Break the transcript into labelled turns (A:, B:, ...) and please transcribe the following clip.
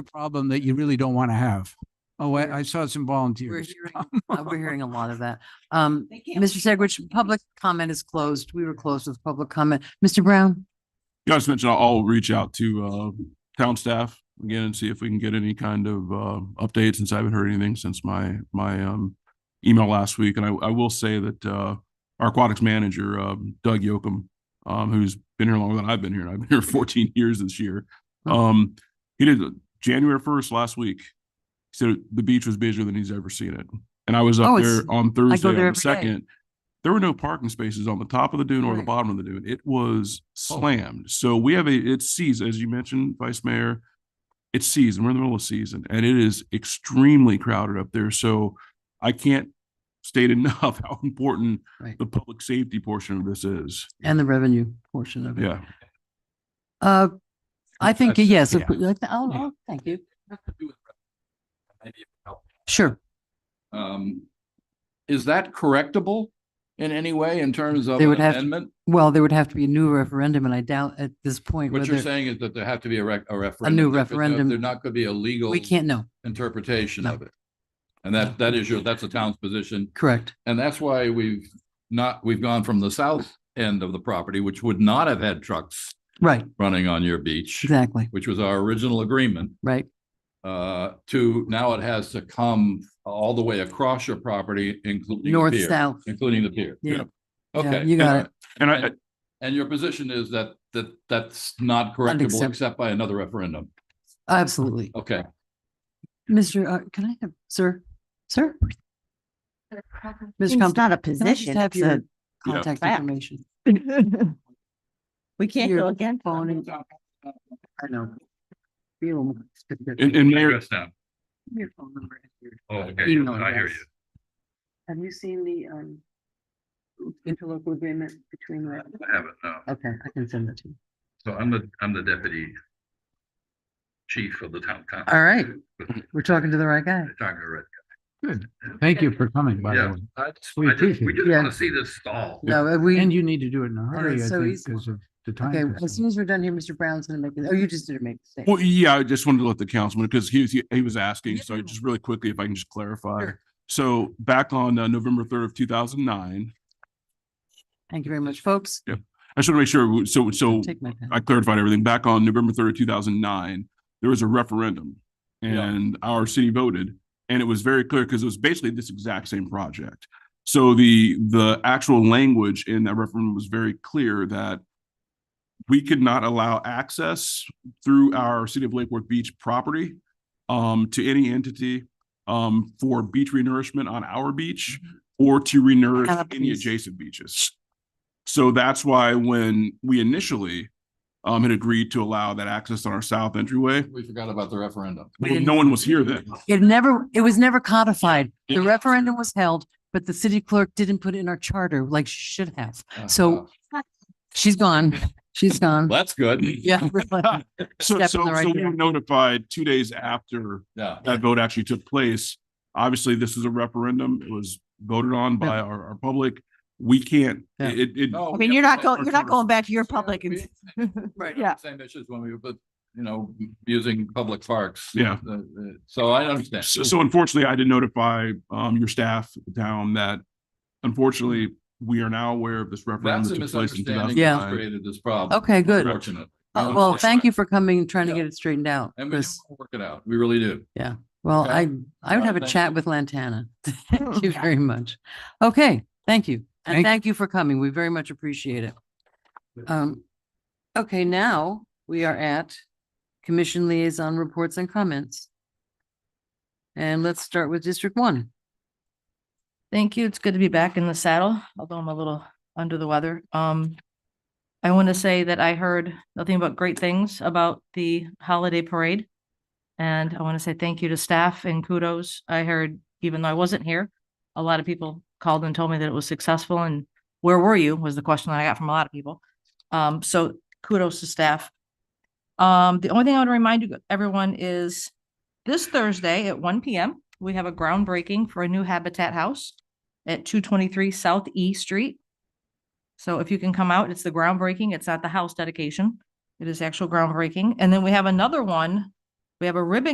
A: a problem that you really don't want to have. Oh,
B: Yeah.
A: I, I saw some
B: We're
A: volunteers.
B: hearing, uh, we're hearing a lot of that. Um, Mr. Segwich, public comment is closed. We were closed with public comment. Mr. Brown?
C: Yeah, I just mentioned I'll- I'll reach out to uh town staff again and see if we can get any kind of uh updates since I haven't heard anything since my my um email last week. And I I will say that uh our aquatics manager, um, Doug Yokum, um, who's been here longer than I've been here, and I've been here fourteen years this year. Um, he did January first last week. He said the beach was busier than he's ever seen it. And I was
B: Oh,
C: up
B: it's-
C: there on Thursday
B: there
C: on
B: every
C: the
B: day.
C: second. There were no parking spaces on the top of the dune or the
B: Right. Oh.
C: bottom of the dune. It was slammed. So we have a, it's season, as you mentioned, Vice Mayor. It's season. We're in the middle of season and it is extremely crowded up there. So I can't state enough how important
B: Right.
C: the public safety portion of this is.
B: And the revenue portion of it.
C: Yeah.
B: Uh, I think,
D: That's-
B: yes,
A: yeah.
B: oh, oh, thank you.
D: Maybe it would help.
B: Sure.
D: Um, is that correctable in any way in terms of
B: They
D: an
B: would have to-
D: amendment?
B: Well, there would have to be a new referendum and I doubt at this point
D: What you're
B: whether,
D: saying is that there have to be a rec, a referendum.
B: new
D: There could-
B: referendum.
D: There not could be a legal
B: we can't know.
D: interpretation
B: No.
D: of it. And that, that is your, that's the town's position.
B: Correct.
D: And that's why we've not, we've gone from the south end of the property, which would not have had trucks
B: Right,
D: running on your beach,
B: exactly.
D: which was our original agreement.
B: Right,
D: uh, to now it has to come all the way across your property, including the
B: north,
D: pier,
B: south.
D: including the pier.
B: Yeah. Yeah,
D: Okay.
B: you got it.
C: And I,
D: And- And your position is that, that, that's not correctable
B: Unaccept-
D: except by another referendum.
B: Absolutely.
D: Okay.
B: Mr., uh, can I have, sir, sir? Mr.
E: It's
B: Compton,
E: not a
B: can I just
E: position,
B: have
E: it's
B: your
E: a.
C: Yeah.
B: contact
E: Fact.
B: information?
E: We can't
B: your
E: go again.
B: phone and- I know. Feel specific.
C: and, and Mayor,
B: Your phone number and your
F: Oh, okay, yeah,
B: email
F: I hear
B: address.
F: you.
B: Have you seen the um interlocal agreement between the,
F: I haven't, no.
B: okay, I can send it to you.
F: So I'm the, I'm the deputy chief of the town council.
B: All right. We're talking to the right guy.
F: Talking to Red.
A: Thank you for coming, by the
F: Yeah,
A: way.
F: I just,
A: We
F: I just, we
A: appreciate it.
F: just
B: Yeah.
F: want to see this stall.
B: No, uh,
A: And
B: we,
A: you need to do it in a hurry, I
B: so
A: think,
B: he's-
A: because of the
B: okay,
A: time.
B: as soon as we're done here, Mr. Brown's gonna make, it. oh, you just didn't make the
C: well,
B: statement.
C: yeah, I just wanted to let the councilman, because he was, he was asking, so I
B: Yeah.
C: just really quickly, if I can just clarify.
B: Sure.
C: So back on uh, November third of two thousand nine,
B: Thank you very much, folks.
C: I should make sure, we- so, so
B: Take my pen.
C: I clarified everything. Back on November third, two thousand nine, there was a referendum.
D: Yeah.
C: And our city voted, and it was very clear because it was basically this exact same project. So the, the actual language in that referendum was very clear that we could not allow access through our City of Lake Worth Beach property um, to any entity um, for beach renourishment on our beach or to renourish any
B: Canopies.
C: adjacent beaches. So that's why when we initially um, had agreed to allow that access on our south entryway,
D: We forgot about the referendum.
B: We
C: well,
B: didn't-
C: no one was here then.
B: It never, it was never codified. The
C: Yeah.
B: referendum was held, but the city clerk didn't put it in our charter like she should have. So- She's gone. She's
D: Uh,
B: gone.
D: That's good.
B: Yeah. really.
C: So,
B: Step in
C: so,
B: the right
C: so we were
B: direction.
C: notified two days after
D: Yeah.
C: that vote actually took place. Obviously, this is a referendum. It was voted on by
B: Yeah.
C: our, our public. We can't,
B: Yeah.
C: it, it,
D: No,
E: I
D: we
E: mean,
D: have
E: you're
D: to
E: not
D: vote.
E: going, you're not going back to your
D: Yeah,
E: public and.
B: Right.
E: Yeah.
D: Same issues when we, but, you know, using public parks.
C: Yeah.
D: Uh, uh, So I understand.
C: So, so unfortunately, I did notify um your staff down that unfortunately, we are now aware of this referendum.
D: That's a
C: that took place in
D: misunderstanding
C: 2009.
D: that's created this problem.
B: Okay, good.
D: Fortunate.
B: Uh, Well, thank you for coming and trying to
D: Yeah.
B: get it straightened out,
D: And we do
B: Chris.
D: wanna work it out. We really do.
B: Well,
D: Okay.
B: I, I would
D: Right,
B: have a
D: thank
B: chat
D: you.
B: with Lantana. Thank you very much. Okay, thank you. And
A: Thank-
B: thank you for coming. We very much appreciate it. Um, okay, now we are at commission liaison reports and comments. And let's start with District One.
G: Thank you. It's good to be back in the saddle, although I'm a little under the weather. Um, I want to say that I heard nothing but great things about the holiday parade. And I want to say thank you to staff and kudos. I heard, even though I wasn't here, a lot of people called and told me that it was successful and where were you was the question that I got from a lot of people. Um, so kudos to staff. Um, the only thing I want to remind you, everyone, is this Thursday at one PM, we have a groundbreaking for a new Habitat House at two twenty-three South E Street. So if you can come out, it's the groundbreaking. It's not the house dedication. It is actual groundbreaking. And then we have another one. We have a ribbon